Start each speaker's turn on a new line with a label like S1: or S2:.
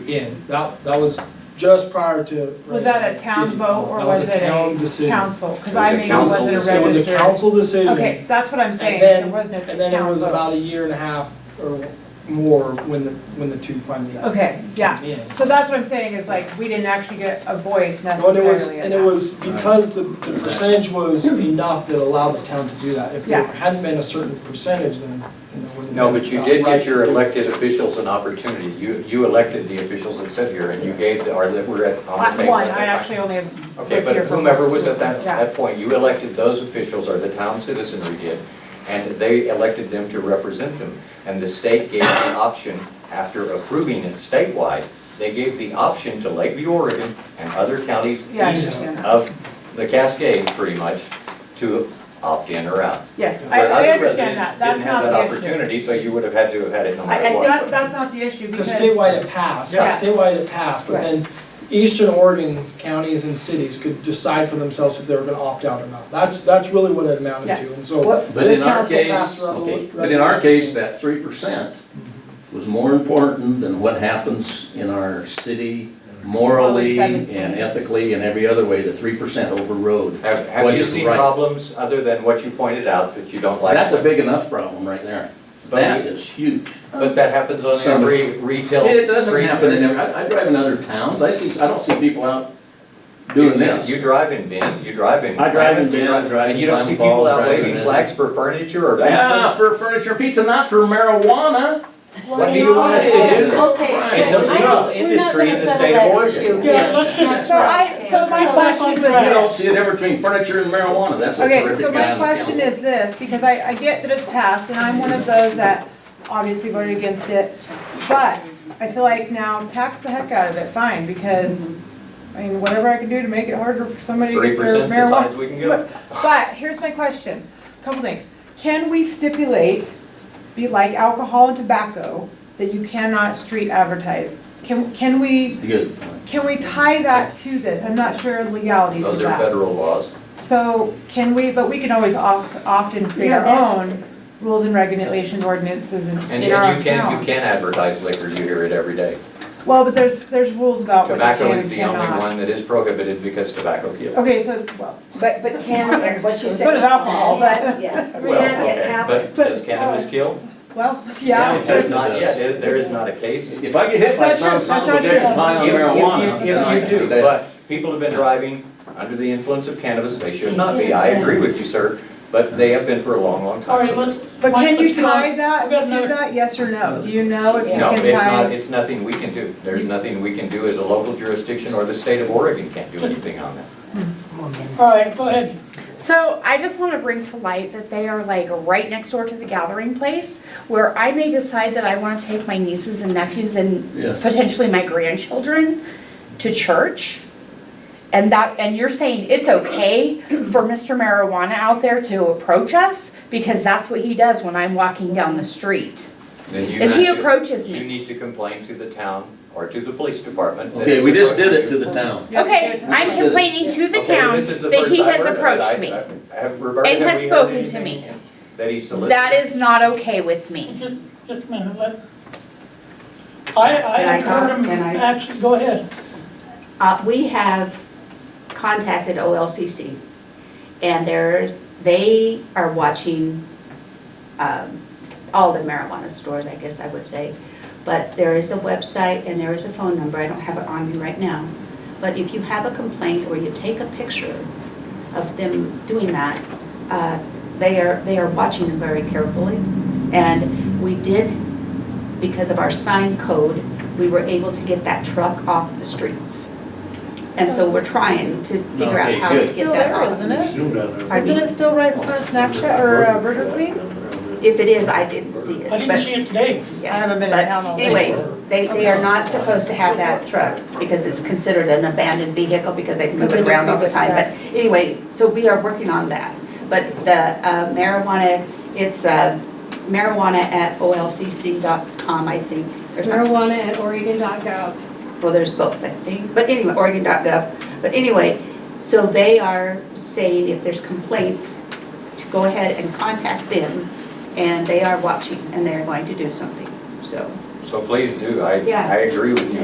S1: Again, that, that was just prior to.
S2: Was that a town vote or
S1: That
S2: was it
S1: town
S2: a
S1: decision.
S2: council? Because
S3: It was
S2: I
S3: a
S2: maybe
S3: council
S2: wasn't a
S3: decision.
S1: It was a
S2: registered.
S1: council decision.
S2: Okay, that's what I'm saying,
S1: And then-
S2: there was no town vote.
S1: And then it was about a year and a half or more when the, when the two finally.
S2: Okay, yeah.
S1: came in.
S2: So that's what I'm saying, is like, we didn't actually get a voice
S1: Well, And it was,
S2: necessarily in
S1: and it
S2: that.
S1: was because the the percentage was enough that allowed the town to do that. If there
S2: Yeah.
S1: hadn't been a certain percentage, then, you know, wouldn't.
S3: No,
S1: have
S3: but you
S1: felt
S3: did
S1: right
S3: get your
S1: to do it.
S3: elected officials an opportunity. You, you elected the officials that sit here and you gave, the- or that were at, on
S2: I-
S3: the table.
S2: One,
S3: at that
S2: I
S3: time.
S2: actually only was
S3: Okay, but
S2: here for
S3: whomever
S2: one.
S3: was at that,
S2: Yeah.
S3: that point, you elected those officials, or the town citizenry did, and they elected them to represent them. And the state gave the option, after approving it statewide, they gave the option to Lakeview, Oregon, and other counties
S2: Yeah, I
S3: east
S2: understand that.
S3: of the Cascade, pretty much, to opt in or out.
S2: Yes, I,
S3: But
S2: I
S3: other
S2: understand
S3: residents
S2: that, that's not the
S3: Didn't have that
S2: issue.
S3: opportunity, so you would have had to have had it no
S2: I, I
S3: matter
S2: think
S3: what.
S2: that- that's not the issue
S1: Because
S2: because.
S1: statewide it passed,
S2: Yeah.
S1: statewide it passed, but then eastern Oregon counties and cities could decide for themselves if they were gonna opt out or not. That's, that's really what it amounted to,
S2: Yes.
S1: and so.
S4: But
S1: this
S4: in our
S1: council
S4: case,
S1: passed several
S4: okay, but in our
S1: resolutions.
S4: case, that three percent was more important than what happens in our city morally
S2: Probably
S4: and
S2: 17.
S4: ethically and every other way, the three percent overrode.
S3: Have,
S4: what
S3: have you
S4: is
S3: seen
S4: right.
S3: problems other than what you pointed out that you don't like?
S4: That's a big enough problem right there.
S3: But
S4: That
S3: we-
S4: is huge.
S3: But that happens on
S4: Some-
S3: every retail.
S4: It doesn't
S3: street.
S4: happen in, every- I I drive in other towns, I see, I don't see people out doing this.
S3: You drive in Bend, you drive in.
S4: I drive in
S3: Clamath, you
S4: Bend, I drive
S3: And
S4: in
S3: you don't see
S4: Klamath
S3: people
S4: Falls,
S3: out
S4: drive in
S3: waving
S4: Edmond.
S3: flags for furniture or
S4: Yeah,
S3: pizza?
S4: for furniture pizza, not for marijuana.
S3: What do you want us to do?
S5: Okay.
S4: Christ,
S3: It's a
S5: I
S3: legal
S5: don't- we're not
S3: industry in
S5: gonna
S3: the
S5: settle
S3: state of
S5: that
S3: Oregon.
S5: issue.
S3: Yes.
S2: So I, so my question was
S4: You
S2: this.
S4: don't see a difference between furniture and marijuana, that's a
S2: Okay,
S4: terrific
S2: so
S4: guy
S2: my
S4: on the council.
S2: question is this, because I, I get that it's passed, and I'm one of those that obviously voted against it, but I feel like now tax the heck out of it, fine, because, I mean, whatever I can do to make it harder for somebody to
S3: Three
S2: get their
S3: percent's as high as
S2: marijuana.
S3: we can go.
S2: But but here's my question, couple things. Can we stipulate, be like alcohol and tobacco, that you cannot street advertise? Can, can we,
S4: Good point.
S2: can we tie that to this? I'm not sure legalities of
S3: Those
S2: that.
S3: are federal laws.
S2: So can we, but we can always opt opt in, create our
S5: Yeah, that's-
S2: own rules and regulation ordinances in
S3: And
S2: in our
S3: and
S2: own
S3: you can, you
S2: town.
S3: can advertise liquor, you hear it every day.
S2: Well, but there's, there's rules about what you
S3: Tobacco
S2: can
S3: is
S2: and
S3: the only
S2: cannot.
S3: one that is prohibited because tobacco kills.
S2: Okay, so, well,
S5: But, but can, what she
S2: So
S5: said.
S2: does alcohol, but-
S5: Yeah.
S3: Well,
S5: Can it
S3: okay,
S5: happen?
S3: but does cannabis kill?
S2: well,
S4: Yeah,
S2: yeah.
S4: it
S3: There's
S4: does.
S3: not yet, There- there is not a case.
S4: If I get hit by
S2: That's
S4: some
S2: not
S4: son of
S2: true.
S4: a
S2: That's
S4: bitch
S2: not
S4: tying on
S3: You- you-
S4: marijuana,
S3: you- you-
S4: then I
S3: You do,
S4: do that.
S3: but people have been driving under the influence of cannabis, they should not be, I agree with you, sir, but they have been for a long, long
S6: All right,
S3: time.
S6: let's.
S2: But
S6: Mike,
S2: can you
S6: let's go on.
S2: tie that
S6: We've got
S2: to
S6: another-
S2: that, yes or no? Do you know if you
S3: No,
S2: can
S3: it's not,
S2: tie?
S3: it's nothing we can do, there's nothing we can do as a local jurisdiction, or the state of Oregon can't do anything on that.
S6: All right, go ahead.
S7: So I just want to bring to light that they are like right next door to the gathering place where I may decide that I want to take my nieces and nephews and
S4: Yes.
S7: potentially my grandchildren to church. And that, and you're saying it's okay for Mr. Marijuana out there to approach us? Because that's what he does when I'm walking down the street.
S3: Then you
S7: As
S3: have
S7: he
S3: to-
S7: approaches
S3: You
S7: me.
S3: need to complain to the town or to the police department. that
S4: Okay, we
S3: it's
S4: just did it
S3: approaching
S4: to
S3: you.
S4: the town.
S2: You have to
S7: Okay,
S2: do it.
S7: I'm complaining to the
S3: Okay,
S7: town
S3: this is the
S7: that
S3: first
S7: he
S3: I've
S7: has
S3: heard of it.
S7: approached
S3: I-
S7: me.
S3: I- have- Roberta,
S7: and
S3: have
S7: has
S3: we heard
S7: spoken to
S3: anything
S7: me.
S3: That he solicited.
S7: That is not okay with me.
S6: Just, just a minute, let. I, I have heard him,
S8: Can I-
S6: actually, go ahead.
S8: Uh, we have contacted OLCC, and there's, they are watching, um, all the marijuana stores, I guess I would say. But there is a website and there is a phone number, I don't have it on me right now. But if you have a complaint or you take a picture of them doing that, uh, they are, they are watching them very carefully. And we did, because of our sign code, we were able to get that truck off the streets. And so we're trying to figure out
S4: Okay,
S8: how to
S4: good.
S8: get
S2: Still
S8: that
S2: there,
S8: off.
S2: isn't it?
S8: Pardon
S2: Isn't
S8: me?
S2: it still right in front of Snapchat or uh, Burger Queen?
S8: If it is, I didn't see it.
S6: I didn't
S8: but-
S6: see it today.
S2: I haven't been in
S8: But
S2: town all day.
S8: Anyway, they, they are not supposed to have that truck because it's considered an abandoned vehicle because they move
S2: Because they
S8: it
S2: just
S8: around all
S2: leave
S8: the
S2: it
S8: time. But
S2: there.
S8: anyway, so we are working on that. But the uh, marijuana, it's uh, marijuana at olcc.com, I think, or something.
S9: marijuana at oregon.gov.
S8: Well, there's both, I think, but anyway, Oregon.gov, but anyway, so they are saying if there's complaints, to go ahead and contact them, and they are watching, and they're going to do something, so.
S3: So please do, I,
S8: Yeah.
S3: I agree with you.